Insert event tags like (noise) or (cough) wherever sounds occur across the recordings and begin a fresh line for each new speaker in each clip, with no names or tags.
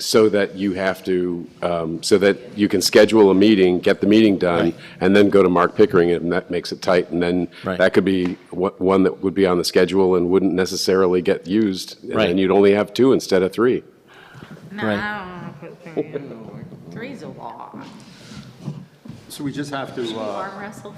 so that you have to, um, so that you can schedule a meeting, get the meeting done,
Right.
and then go to Mark Pickering, and that makes it tight, and then
Right.
that could be wha- one that would be on the schedule and wouldn't necessarily get used, and
Right.
then you'd only have two instead of three.
No,
Right.
I don't want to put three in. Three's a lot.
So we just have to, uh,
Arm wrestle.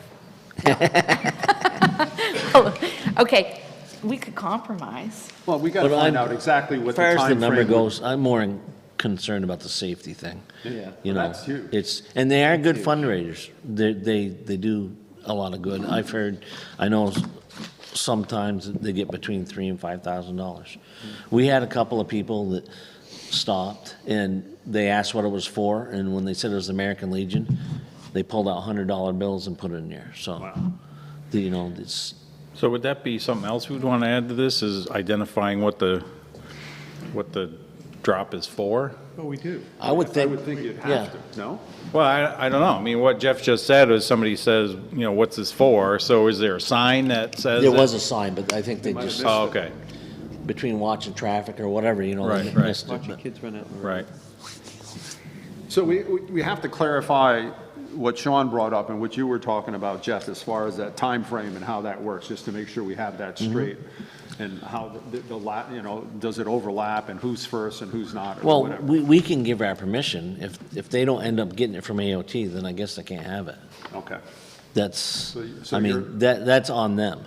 (laughs) Oh, Okay, we could compromise.
well, we got to
But
find
I'm-
out exactly what
As far
the timeframe.
as the number
would-
goes, I'm more in- concerned about the safety thing.
Yeah.
You know,
That's huge.
it's, and they are good fundraisers. They, they, they do a lot of good. I've heard, I know s- sometimes they get between three and five thousand dollars.
Hmm.
We had a couple of people that stopped and they asked what it was for, and when they said it was American Legion, they pulled out hundred dollar bills and put it in there, so. the- You know, it's,
So would that be something else we'd want to add to this, is identifying what the, what the drop is for?
Oh, we do.
I would
I
think-
would think you'd
yeah.
have to, no?
Well, I, I don't know. I mean, what Jeff just said is somebody says, you know, what's this for? So is there a sign that says?
there
it-
was a sign, but I think they just,
Oh, okay,
between watching traffic or whatever, you know, they
Right, right.
missed it. but-
right.
So we, we we have to clarify what Sean brought up and what you were talking about, Jeff, as far as that time frame and how that works, just to make sure we have that
Mm-hmm.
straight. And how the, the la, you know, does it overlap and who's first and who's not or
Well,
whatever?
we, we can give our permission. If, if they don't end up getting it from AOT, then I guess they can't have it.
Okay.
That's,
So you- so
I
you're-
mean, that, that's on them.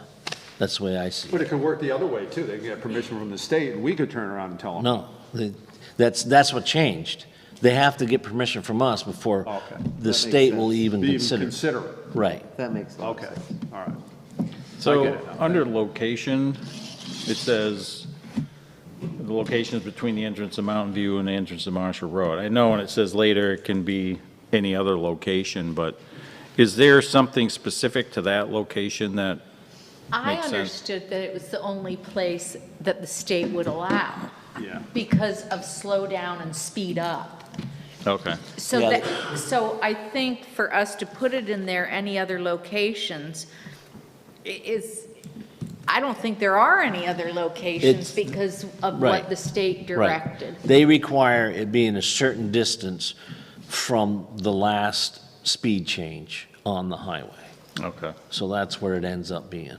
That's the way I see it.
But it could work the other way too. They could get permission from the state and we could turn around and tell them.
No, they- that's, that's what changed. They have to get permission from us before
Okay.
the state will even
Be
consider.
even
it.
consider it.
Right.
That makes sense.
Okay, all right. I get
So,
it now.
under location, it says, the location is between the entrance of Mountain View and the entrance of Marshall Road. I know, and it says later it can be any other location, but is there something specific to that location that,
I
Makes sense.
understood that it was the only place that the state would allow
Yeah.
because of slow down and speed up.
okay,
So
Yeah.
that, so I think for us to put it in there, any other locations, i- is, I don't think there are any other locations
It's-
because of
right,
what the state
Right.
directed.
They require it being a certain distance from the last speed change on the highway.
okay.
So that's where it ends up being.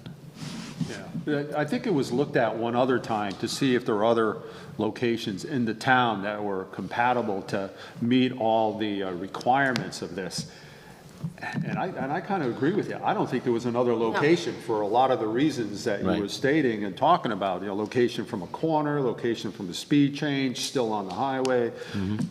Yeah, I think it was looked at one other time to see if there were other locations in the town that were compatible to meet all the uh, requirements of this. And I, and I kind of agree with you. I don't think there was another location for a lot of the reasons that you
Right.
were stating and talking about, you know, location from a corner, location from a speed change, still on the highway,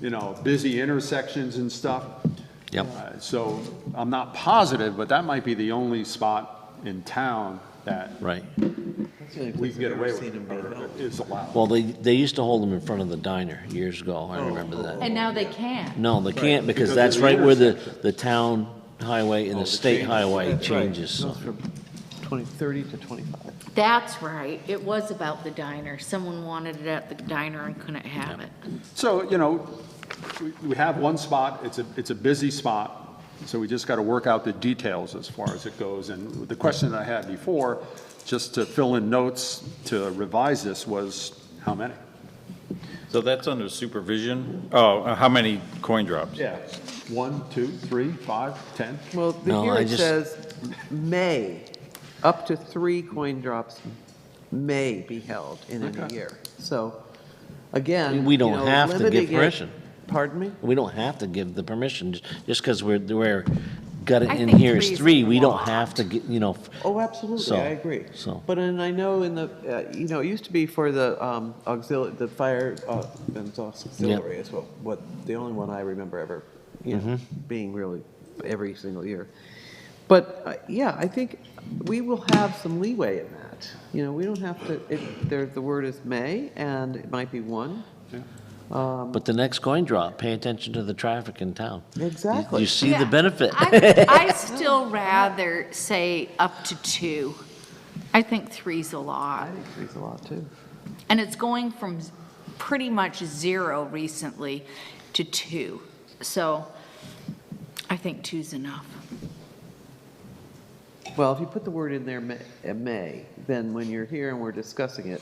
you know, busy intersections and stuff.
Mm-hmm. Yep.
Uh, So I'm not positive, but that might be the only spot in town that
Right.
That's the only
we
place
can get
I've
away
ever
with
seen him being held.
it, is allowed.
Well, they, they used to hold them in front of the diner years ago, I remember that.
And now they can.
No, they can't, because
because of
that's
the
right where the, the town highway and the state highway
That's right.
changes, so.
Goes From 20, 30 to 25.
That's right. It was about the diner. Someone wanted it at the diner and couldn't have it.
So, you know, we- we have one spot, it's a, it's a busy spot, so we just got to work out the details as far as it goes. And the question that I had before, just to fill in notes to revise this, was how many?
So that's under supervision? Oh, uh, how many coin drops?
Yeah. One, two, three, five, 10?
Well, the
No,
here
I
it
just-
says, may, up to three coin drops may be held in any
Okay.
year. So, again.
We don't
you know,
have to give
limiting it-
permission.
Pardon me?
We don't have to give the permission, j- just because we're, we're, got it
I
in
think
here
three
as
is
three, we
a
don't
lot.
have to, get you know, f-
Oh, absolutely,
So-
I agree.
so.
But, and I know in the, uh, you know, it used to be for the um, auxiliary, the fire, uh, and it's auxiliary is what, what, the only one I remember ever, you know,
Mm-hmm.
being really every single year. But, uh, yeah, I think we will have some leeway in that. You know, we don't have to, it, there, the word is may, and it might be one.
but the next coin drop, pay attention to the traffic in town. You-
Exactly.
You see the benefit.
I,
(laughs)
I still rather say up to two. I think three's a lot.
I think three's a lot, too.
And it's going from z- pretty much zero recently to two. So I think two's enough.
Well, if you put the word in there, may- uh, may, then when you're here and we're discussing it,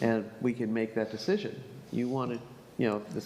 and we can make that decision, you want to, you know, if the